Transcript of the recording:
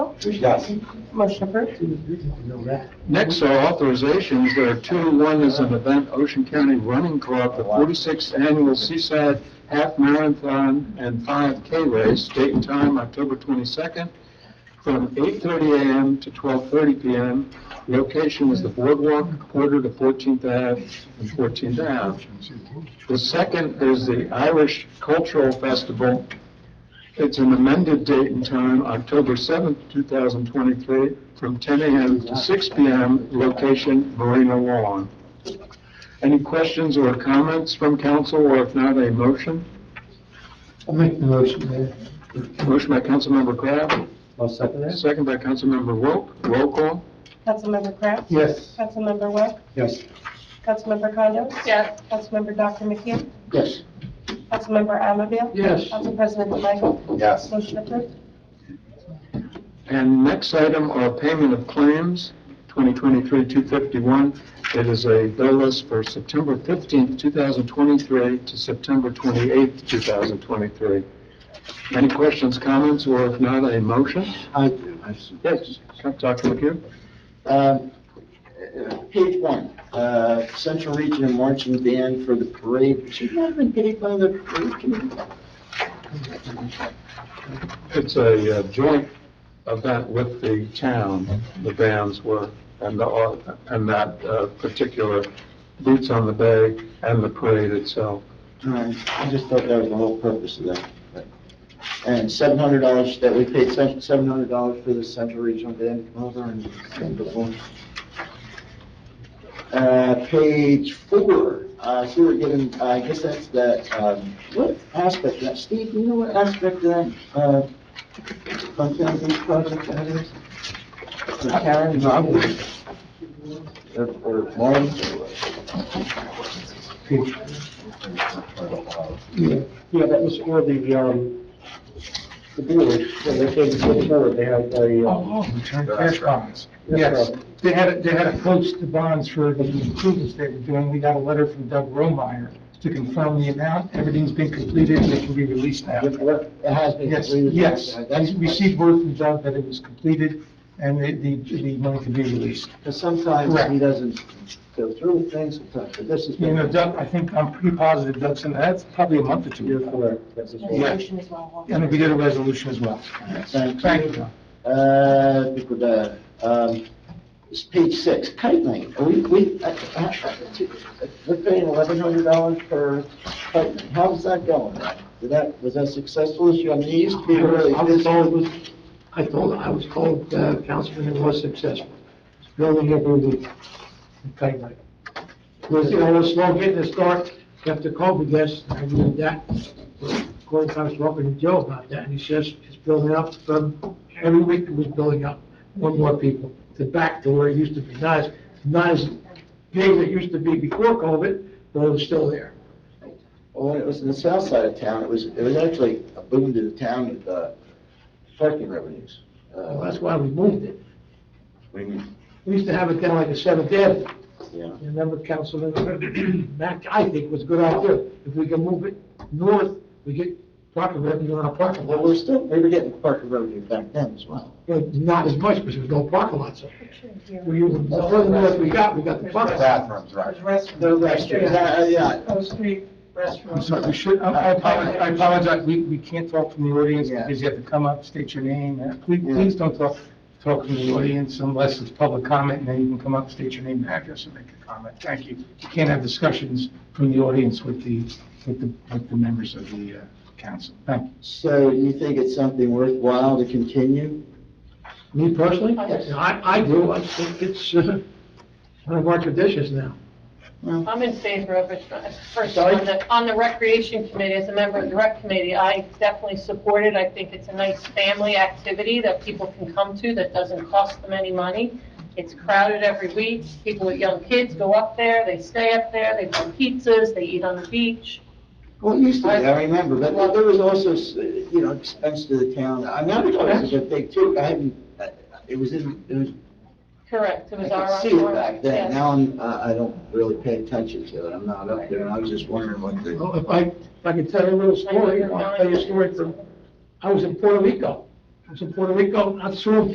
Yes. Motion approved. Next are authorizations. There are two. One is an event, Ocean County Running Club, the 46th Annual Seaside Half Marathon and 5K Race, date and time, October 22nd, from 8:30 a.m. to 12:30 p.m. Location is the Boardwalk, quarter to 14th Ave and 14th Ave. The second is the Irish Cultural Festival. It's an amended date and time, October 7th, 2023, from 10 a.m. to 6 p.m., location Marina Lawn. Any questions or comments from council, or if not, a motion? I'll make the motion, Mayor. Motion by Councilmember Kraft, I'll second that. second by Councilmember Wilk, roll call. Councilmember Kraft. Yes. Councilmember Webb. Yes. Councilmember Condo. yes, Councilmember Dr. McKee. Yes. Councilmember Anfield. Yes. Council President DeMichael. Yes. Motion approved. And next item are payment of claims, 2023-251. It is a bill list for September 15th, 2023 to September 28th, 2023. Any questions, comments, or if not, a motion? I do, I see. Yes, Dr. McHugh? Um, uh, Page one, uh, Central Region Marching Band for the parade, should not have been paid by the parade committee. It's a uh, joint event with the town, the bands were, and the, au- and that uh, particular Boots on the Bay and the parade itself. Um, I just thought that was the whole purpose of that. but- And seven hundred dollars, that we paid seven hundred dollars for the Central Regional Band to come over and and perform. Uh, page four, uh, so we're given, I guess that's the, um, what aspect, of that, Steve, do you know what aspect of that, uh, Fontana Beach project that is? For Karen Roberts? Or, or Lauren? Yeah, that was for the, um, the board, when they came to the board, they had a, uh, Oh, return cash bonds. Yes. They had, they had approached the bonds for the improvements they were doing. We got a letter from Doug Romeyer to confirm the amount. Everything's been completed and it can be released now. It has been. Yes, completed. yes. Uh, I That's received word from Doug that it was completed and the, the, the money can be released. Because sometimes he Correct. doesn't go through with things, sometimes, but this is. You know, Doug, I think, I'm pretty positive Doug's, in that's probably a month or two. you're ago. correct. That's what- Yeah. Resolution is well. And we did a resolution as well. Thank Thank you, you. Doug. Uh, people that, um, it's page six, kite lane. Are we, we, uh, uh, uh, we're paying eleven hundred dollars per kite lane. How's that going? Did that, was that successful this year? I mean, it used to be I was- really. I was told, it was- I told, I was told, uh, Councilman, it was successful. It's Building up with the kite light. Was, you know, it was slow getting the start after COVID, yes, I knew that. Of course, I was talking to Joe about that, and he says it's building up from, every week it was building up, one more people, to back to where it used to be. Not as, not as big as it used to be before COVID, but it was still there. Well, when it was in the south side of town, it was, it was actually a boom to the town with, uh, parking revenues. Well, Uh, that's why we moved it. we need- We used to have it down like a Seventh Avenue. yeah. You Remember, Councilman, Mack, I think was a good idea. If we can move it north, we get parking revenue on our parking Well, we're lots. still, we were getting parking revenue back then as well. But not as much because there's no parking lots. We, use- the further north we got, we got the parking. lot. Bathrooms, there's restrooms. The restrooms, uh, yeah. Those three restrooms. I'm sorry, we should, I I apologize, I apologize, we, we can't talk from the audience Yeah. because you have to come up, state your name, and please, Yeah. please don't talk, talk from the audience unless it's public comment, and then you can come up, state your name and address and make a comment. Thank you. You can't have discussions from the audience with the, with the, with the members of the uh, council. Thank you. So you think it's something worthwhile to continue? Me personally? Yes. I, I do. I think it's uh, one of our traditions now. I'm in favor of it. uh, First, Sorry? on the, on the recreation committee, as a member of the rec committee, I definitely support it. I think it's a nice family activity that people can come to that doesn't cost them any money. It's crowded every week. People with young kids go up there, they stay up there, they buy pizzas, they eat on the beach. Well, it used to be, I remember, but well, there was also, you know, expense to the town. I mean, I thought it was a big too, I hadn't, it was in, it was, Correct, it I was our. could see it back then. Now I'm, uh, I I don't really pay attention to it. I'm not up there, and I was just wondering what the. Well, if I, if I could tell you a little story, I'll tell you a story from, I was in Puerto Rico. I was in Puerto Rico, not soon,